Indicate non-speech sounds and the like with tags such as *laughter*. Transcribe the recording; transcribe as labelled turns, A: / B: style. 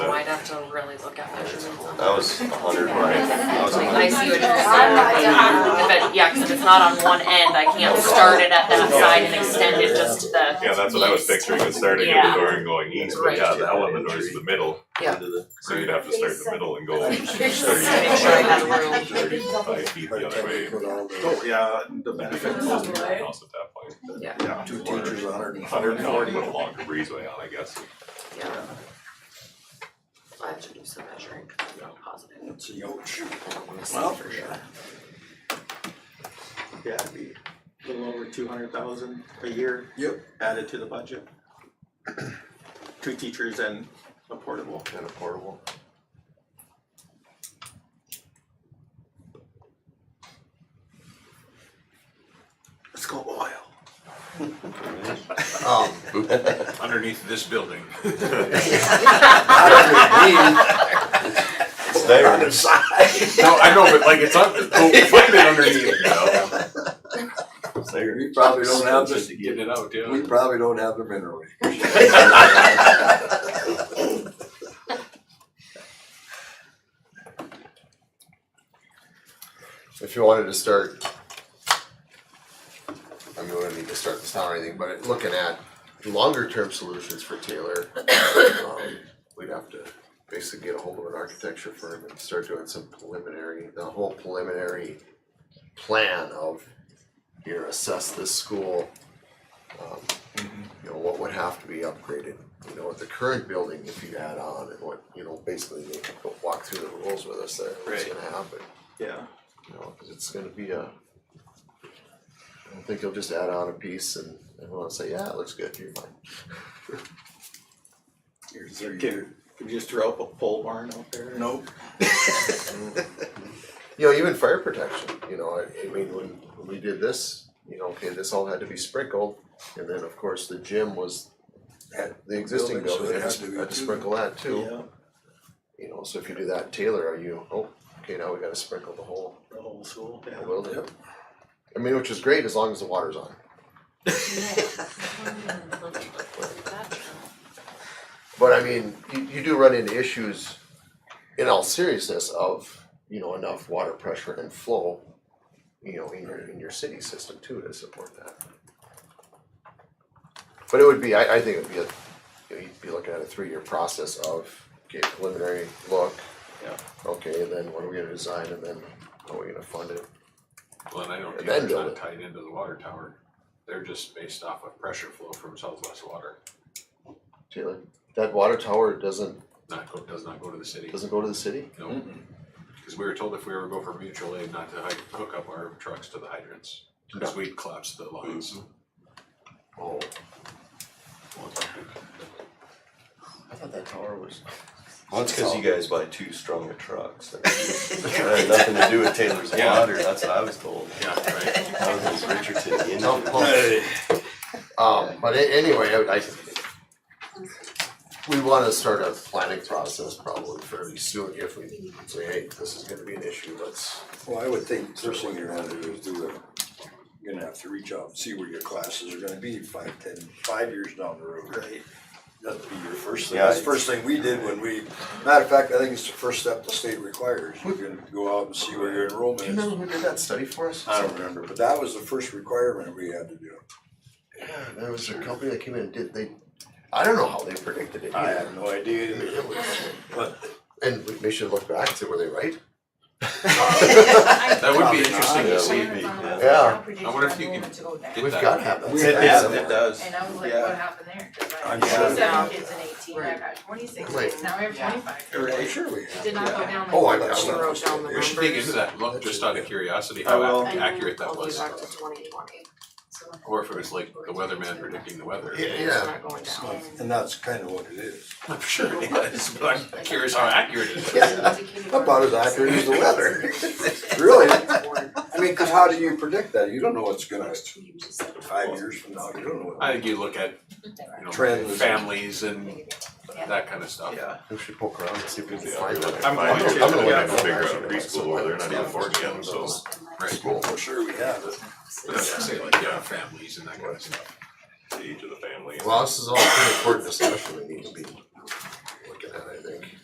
A: have to really look at measurements on that.
B: That was a hundred when I, that was a
A: Like,
B: hundred.
A: I see what you're saying. If it, yeah, cause if it's not on one end, I can't start it at that side and extend it just to the,
C: Yeah, that's what I was picturing, is starting at
A: Yeah.
C: the door and going east, but
A: Right.
C: yeah, the element is the middle,
A: Yeah.
C: so you'd have to start in the middle and go
A: Make sure I have room.
C: thirty, thirty-five feet the other way.
D: *laughs*
E: Oh, yeah, the
C: You
E: benefit
C: could close the house at that point.
E: yeah, two teachers, a hundred and
C: Hundred and forty,
E: forty.
C: put a longer breezeway on, I guess.
A: yeah. I have to do some measuring, 'cause I'm not positive, *laughs*
E: It's a huge.
A: I don't wanna say
F: Well,
A: for sure.
F: Yeah, it'd be a little over two hundred thousand a year.
E: Yep.
F: Added to the budget. Two teachers and a portable.
B: Kind of portable.
F: Let's go oil.
G: Um,
D: underneath
C: *laughs*
D: this building.
B: It's there.
D: No, I know, but like it's on, find
C: *laughs*
D: it underneath, you know?
G: *laughs*
B: It's there.
G: we probably don't have
D: Just
G: the,
D: to get it out, yeah.
G: we probably don't have the mineral.
H: if you wanted to start, I mean, we don't need to start this now or anything, but looking at longer term solutions for Taylor, um, we'd have to basically get a hold of an architecture firm and start doing some preliminary, the whole preliminary plan of, you know, assess this school. Um, you know, what would have to be upgraded, you know, with the current building if you add on and what, you know, basically they could go walk through the rules with us there, what's
F: Right.
H: gonna happen
F: Yeah,
H: you know, cause it's gonna be a. I don't think you'll just add on a piece and everyone will say, yeah, it looks good, you're fine.
E: Here's
F: could,
E: your-
F: could you just throw up a pole barn out there?
E: Nope,
H: You know, even fire protection, you know, I, I mean, when, when we did this, you know, okay, this all had to be sprinkled. And then, of course, the gym was, had the existing
E: Building, so
H: building,
E: it had
H: had to,
E: to be
H: had to
E: too.
H: sprinkle that too.
F: Yeah,
H: You know, so if you do that in Taylor, are you, oh, okay, now we gotta sprinkle the whole
F: the whole school, yeah.
H: building.
E: Yep.
H: I mean, which is great as long as the water's on. But I mean, you, you do run into issues in all seriousness of, you know, enough water pressure and flow, you know, in your, in your city system too to support that. But it would be, I, I think it'd be a, you know, you'd be looking at a three-year process of, okay, preliminary look.
F: Yeah.
H: Okay, and then what are we gonna design and then how are we gonna fund it?
D: Well, and I know
H: And then
D: Taylor's
H: build
D: not
H: it.
D: tied into the water tower. They're just based off of pressure flow from Southwest Water.
H: Taylor, that water tower doesn't,
D: Not go, does not go to the city.
H: doesn't go to the city?
D: No. Cause we were told if we ever go for mutual aid, not to hy- hook up our trucks to the hydrants. Cause we'd collapse the lines.
H: Mm-hmm. Oh. I thought that tower was.
B: Well, it's cause you guys buy two
F: *laughs*
B: stronger trucks. That had nothing to do with Taylor's
D: Yeah.
B: water, that's what I was told.
D: Yeah, right.
B: That was Richardson, you know?
H: No, well, Um, but a- anyway, I, I. We wanna start a planning process probably fairly soon if we say, hey, this is gonna be an issue, let's.
E: well, I would think first thing you're gonna do is do a, you're gonna have to reach out and see where your classes are gonna be five, ten, five years down the road. Right. That'd be your first thing,
B: Yeah,
E: that's the
B: it's-
E: first thing we did when we, matter of fact, I think it's the first step the state requires, you're gonna go out and see where your enrollment is.
H: who did that study for us?
E: I don't remember, but that was the first requirement we had to do.
H: There was a company that came in and did, they, I don't know how they predicted it either.
E: have no idea either. But
H: And we, we should look back and say, were they right?
F: *laughs*
D: That would be interesting to
B: Yeah,
D: see.
B: we'd be-
H: Yeah.
D: I wonder if you can Get
H: We've
D: that.
H: gotta have that.
E: We
H: study
E: have
H: somewhere.
F: it does.
I: And I was like,
E: Yeah.
I: what happened there? 'Cause I
E: I'm
I: had
E: sure.
I: seven kids and eighteen, I
A: Right.
I: got twenty-six
H: Right.
I: kids, now I have
A: Yeah.
I: twenty-five.
E: I'm sure we have.
A: Did not go
E: yeah.
A: down
H: Oh, I
A: like
H: got
A: I
H: it.
A: wrote down the
E: We
A: numbers.
E: should
D: Dig into that look just out of curiosity,
F: I
D: how
F: will.
D: ac- accurate that was.
A: I'll be back to twenty twenty, so
D: Or if it was like the weatherman predicting the weather.
H: Yeah,
A: it's
H: yeah,
A: not going down.
E: And that's kind of what it is.
D: *laughs* I'm sure it is, but I'm curious how accurate it is.
E: About as accurate as the weather. *laughs* Really? I mean, cause how do you predict that? You don't know what's gonna, five years from now, you don't
D: I
E: know what.
D: think you look at, you know,
E: Trends.
D: families and that kind of stuff.
F: Yeah,
H: we should poke around and see if we can
D: Yeah.
H: find that.
C: I'm
D: going
C: to,
H: I'm gonna
C: yeah,
H: look at
C: I'll figure
H: that.
C: out preschool over there, not even four yet, so.
D: Right.
H: Cool.
E: For sure we have it.
D: But I'd say like, yeah, families and that kind of stuff.
C: The age of the family.
H: Well, this is all a pretty important discussion that needs to be